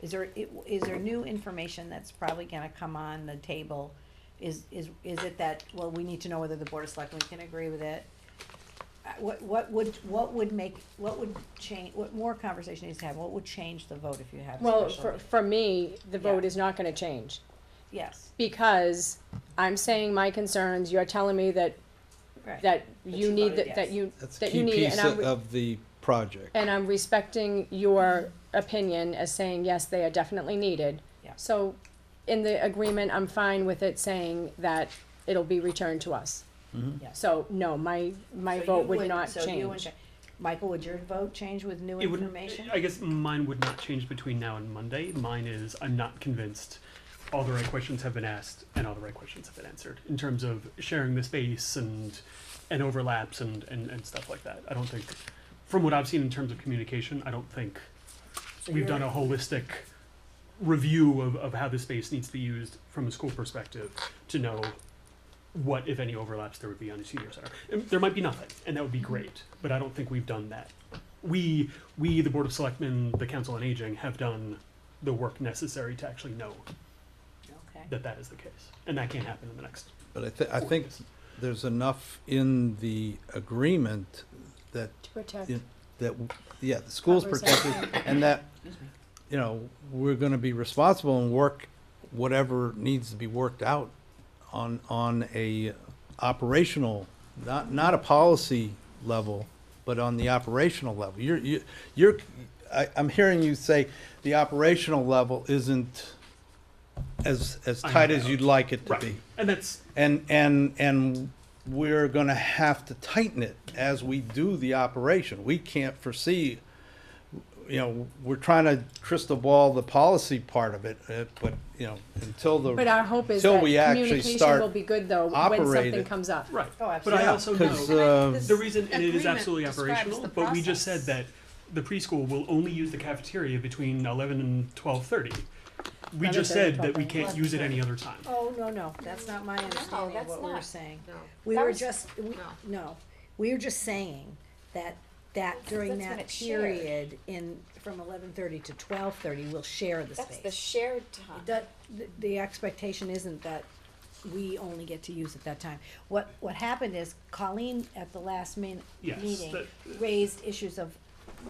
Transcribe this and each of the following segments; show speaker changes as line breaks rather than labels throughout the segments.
Is there, i- is there new information that's probably gonna come on the table? Is, is, is it that, well, we need to know whether the board of selectmen can agree with it? Uh, What, what would, what would make, what would change, what more conversation needs to have, what would change the vote if you have
Well,
a special?
for,
meeting?
for me, the vote
Yeah.
is not gonna change,
Yes,
because I'm saying my concerns, you're telling me that,
right.
that
That
you
you
need,
voted
that, that
yes.
you,
That's a
that you
key
need,
piece
and I'm,
of
re-
of the project.
and I'm respecting your opinion as saying, yes, they are definitely needed.
Yeah.
So, in the agreement, I'm fine with it saying that it'll be returned to us.
Mm-hmm.
Yeah.
So, no, my, my
So
vote
you
would
wouldn't-
not
so you wouldn't
change.
cha- Michael, would your vote change with new
It would,
information?
I guess mine would not change between now and Monday. Mine is I'm not convinced all the right questions have been asked and all the right questions have been answered in terms of sharing the space and and overlaps and, and, and stuff like that. I don't think from what I've seen in terms of communication, I don't think
So you're-
we've done a holistic review of, of how the space needs to be used from a school perspective to know what, if any, overlaps there would be on the senior center. And there might be nothing, and that would be great, but I don't think we've done that. We, we, the Board of Selectmen, the Council on Aging, have done the work necessary to actually know
Okay.
that that is the case, and that can't happen in the next.
But I thi- I think
Yes.
there's enough in the agreement that,
To protect.
you- that, w- yeah, the school's
Covers
protected and that, you know, we're gonna be responsible and work whatever needs to be worked out on, on a operational, not, not a policy level, but on the operational level. You're, you- you're, I, I'm hearing you say the operational level isn't as, as
Ironed
tight as
out.
you'd like it to
Right.
be.
And that's,
And, and, and we're gonna have to tighten it as we do the operation. We can't foresee, you know, we're trying to crystal ball the policy part of it, uh, but, you know, until the.
But our hope is
till
that
we actually
communication
start
will be good, though, when
operate
something
it.
comes up.
right.
Oh,
But I
absolutely.
Yeah,
also know.
'cause, uh,
The reason, and it is absolutely
describes
operational,
the
but we just said
process.
that the preschool will only use the cafeteria between eleven and twelve thirty. We just
11:30,
said that we
12:30.
can't use it any other time.
Oh, no, no, that's not my understanding of
that's
what we were
not.
saying.
No.
We
That
were
was-
just, we,
no.
no, we were just saying that, that during
that's when
that
it's shared.
period in, from eleven thirty to twelve thirty, we'll share the
That's the
space.
shared time.
That, the- the expectation isn't that we only get to use it that time. What, what happened is Colleen at the last min,
Yes,
meeting
that-
raised issues of,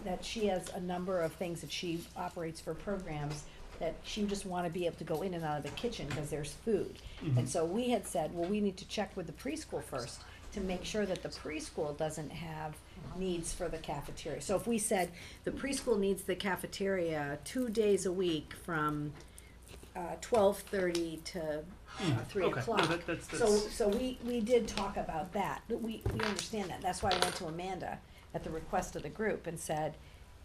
that she has a number of things that she operates for programs that she just wanna be able to go in and out of the kitchen, cause there's food.
Mm-hmm.
And so we had said, well, we need to check with the preschool first to make sure that the preschool doesn't have needs for the cafeteria. So if we said the preschool needs the cafeteria two days a week from uh, twelve thirty to uh, three
Hmm, okay. No,
o'clock.
that- that's-
So,
that's-
so we, we did talk about that, but we, we understand that, that's why I went to Amanda at the request of the group and said,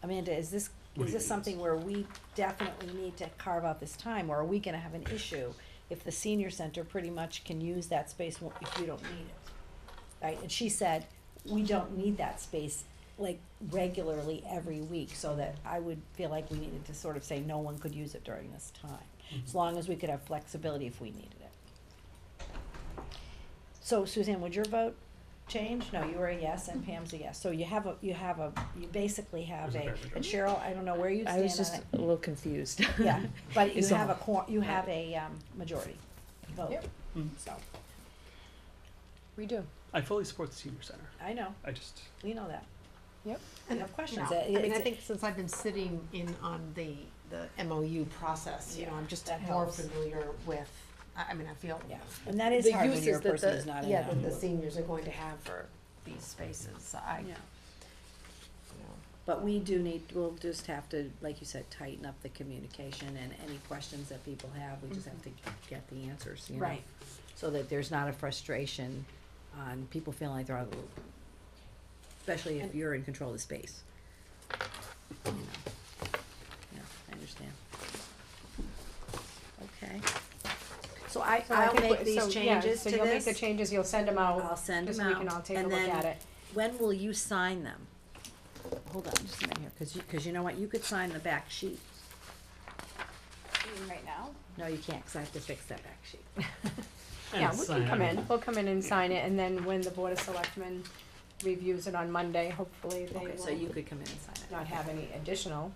Amanda, is this,
What do
is
you
this
think?
something where we definitely need to carve out this time, or are we gonna have an issue if the senior center pretty much can use that space wh- if you don't need it? Right, and she said, we don't need that space like regularly every week, so that I would feel like we needed to sort of say no one could use it during this time,
Mm-hmm.
as long as we could have flexibility if we needed it. So Suzanne, would your vote change? No, you were a yes and Pam's a yes. So you have a, you have a, you basically have
There's
a,
a fair
and Cheryl, I don't know where you
I was
stand
just
on it.
a little confused.
Yeah, but you
It's all-
have a cor- you have a, um, majority vote,
Mm.
so,
We do.
I fully support the senior center.
I know,
I just,
we know that.
Yep.
You have questions. Uh,
I mean, I
it's-
think since I've been sitting in on the, the MOU process, you know,
Yeah,
I'm just
that
more
helps.
familiar with, I, I mean, I feel
Yeah, and that is
the
hard when
uses
you're a
that
person
the-
who's not in
Yeah,
that.
that the seniors are going to have for these spaces, I, you
Yeah.
know.
But we do need, we'll just have to, like you said, tighten up the communication and any questions that people have, we just have to get the answers, you know?
Right.
So that there's not a frustration on people feeling like they're out of the loop. Especially if you're in control of the space. You know. Yeah, I understand. Okay. So I, I'll make these changes to
So you'll make the
this.
changes, you'll send them out.
I'll send
just
them
we can
out,
all take a
and
look
then-
at it.
When will you sign them? Hold on just a minute here, cause you, cause you know what, you could sign the back sheet.
Right now?
No, you can't, cause I have to fix that back sheet.
and
Yeah, we
sign-
can come in, we'll come in and sign it, and then when the Board of Selectmen reviews it on Monday, hopefully they
Okay, so you
will
could come in and sign it.
not have any additional